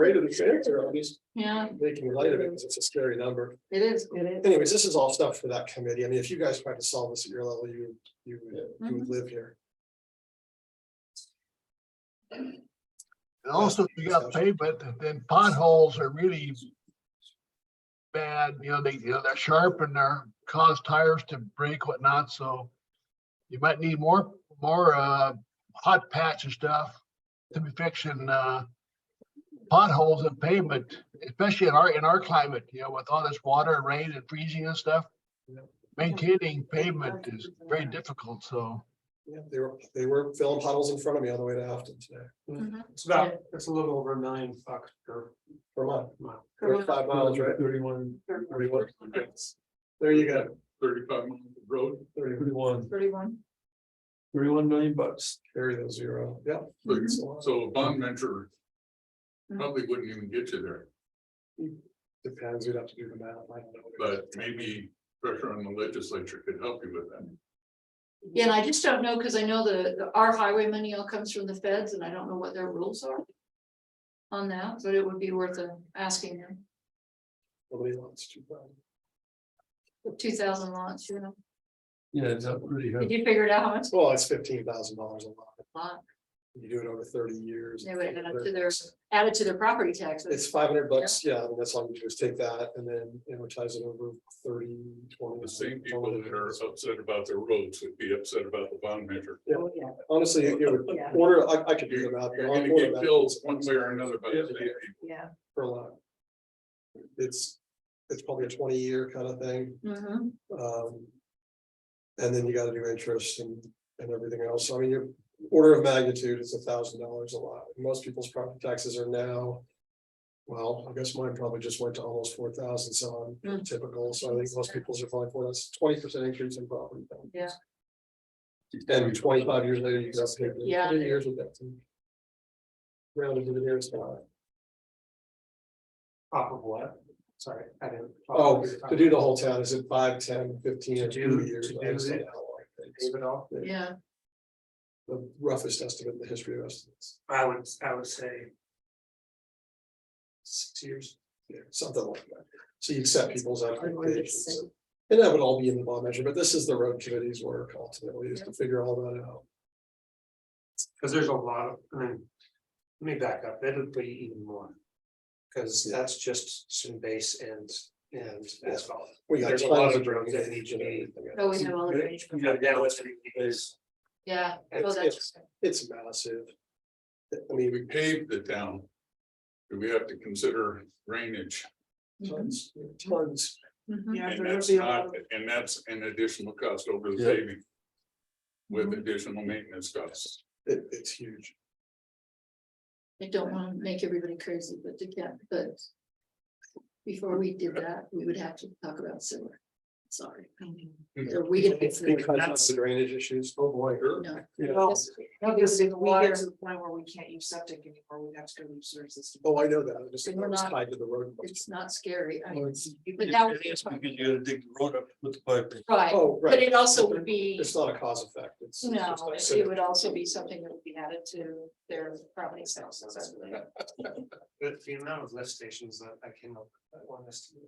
afraid of the trans or at least Yeah, making light of it because it's a scary number. it is. It is. Anyways, this is all stuff for that committee. I mean, if you guys tried to solve this at your level, you, you, would- you would live here. And also, you got pavement, and then potholes are really bad, you know, they, you know, they're sharp and they're cause tires to break whatnot, so you might need more, more, uh, hot patch and stuff to be fixing, uh, potholes and pavement, especially in our, in our climate, you know, with all this water and rain and freezing and stuff. Maintaining pavement is very difficult, so. Yeah, they were, they were filling puddles in front of me on the way to Afton today. Mm-hmm. It's about, it's a little over nine bucks per For mile. mile. Or five miles, right? Thirty-one, Thirty-one. There you go. thirty-five miles of road, Thirty-one. thirty-one, Thirty-one. thirty-one million bucks. Mhm. Carry the zero. Yeah. But- It's a lot. So a bond measure Mhm. probably wouldn't even get you there, Depends. You'd have to do the math. I don't know. but maybe pressure on the legislature could help you with that. Yeah, and I just don't know, because I know the, the- our highway money all comes from the feds, and I don't know what their rules are. On that, but it would be worth uh, asking them, Nobody wants to. but- two thousand lots, you know, Yeah, it's up really did good. you figure it out how much? Well, it's fifteen thousand dollars a lot. Lot. You do it over thirty years. They would add up to their, added to their property taxes, It's five hundred bucks, yeah, and that's all you do is take that and then amortize it over thirty, twenty. The same people that are upset about their roads would be upset about the bond measure. Oh, yeah. Honestly, it would Yeah. order, I I could do You're them out. you're gonna get bills one way or another by the same people. Yeah. Per lot. It's, it's probably a twenty year kind of thing, Mhm. um. And then you gotta do interest and, and everything else, So, I mean, your order of magnitude is a thousand dollars a lot, most people's property taxes are now. Well, I guess mine probably just went to almost four thousand, so I'm Mm. typical, so I think most people's are probably for us, twenty percent increase in property. taxes. Yeah. And twenty-five years later, you just pay. Yeah. Years with that. Rounded to the nearest dollar. Oh. Off of what? Sorry, I didn't. Oh, to do the whole town, is it five, ten, To fifteen, do- two years? to do I just the- don't know how long it takes. Leave it off. yeah, The roughest estimate in the history of estimates, I would, I would say. Six years. Yeah, something like that. So you accept people's expectations. It's And that would all be in the bond measure, but this is the road committee's work ultimately, is to figure all that out. Cause there's a lot of, I mean, let me back up, it'll be even more. Cause that's just some base and, and asphalt. We got There's a lot tons of roads that need to be- everything else. but Oh, we have all the drainage, You know, that was. Is. yeah. oh, It's- that's- It's massive. I If mean, we pave the town, do we have to consider drainage? Mhm. tons, tons. Mhm. And that's not, and that's an additional cost over the Yeah. paving. With additional maintenance costs. It, it's huge. I don't wanna make everybody crazy, but they can, but. Before we did that, we would have to talk about sewer, sorry. So We didn't. get sewer. Because of the drainage issues, oh boy. No. Yeah. Well, Yes. No, because if we Water. get to the point where we can't use septic anymore, we'd have to go to the sewer system. Oh, I know that, I just, And it we're was not- tied to the road. It's not scary, I Well, mean, it's- but that would It be is because you gotta dig the road up with the pipe. right, Oh, but right, it also would be, it's not a cause effect, it's. it's no, just like it civic- would also be something that would be added to their property taxes. I believe. But the amount of lift stations that I came up, with, I want us to. do.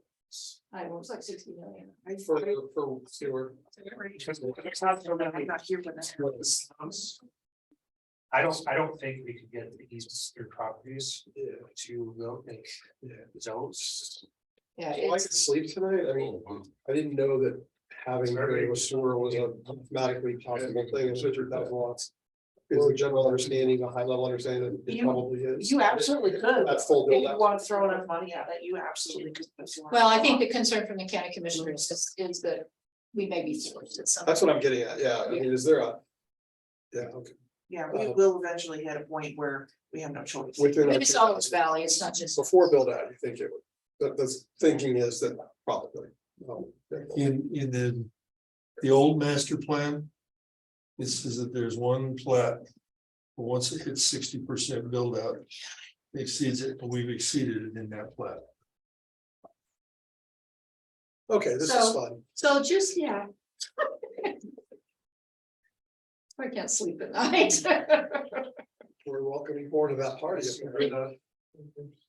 I was like sixty million. I- For, for sewer. It's not so I'm many not here for that. sums. I don't, I don't think we could get the easements through properties to go make Yeah. zones. Yeah, Well, I it's, could sleep tonight, I mean, Oh, wow. I didn't know that having Survey. a sewer was a mathematically possible thing, it's such a thousand lots. Is the general understanding, a high level understanding that it You- probably is. You absolutely could. That's full If build you out. want to throw enough money at it, you absolutely could. put sewer well, I in. think the concern from the county commissioners is, is that we may be sourced at some. That's what I'm getting at, yeah, I mean, is there a? Yeah, okay, Yeah, we will eventually hit a point where we have no choice. within. our- It's all this valley, it's not just. Before build out, you think it would, the, the thinking is that probably. Um, no, there won't. in, in the, the old master plan. It says that there's one plat. but Once it hits sixty percent build out. Exceeds it, but we've exceeded it in that plat. Okay, this is So- fun. So just, yeah. I can't sleep at night. We're welcoming more to that party. Yes, we're the-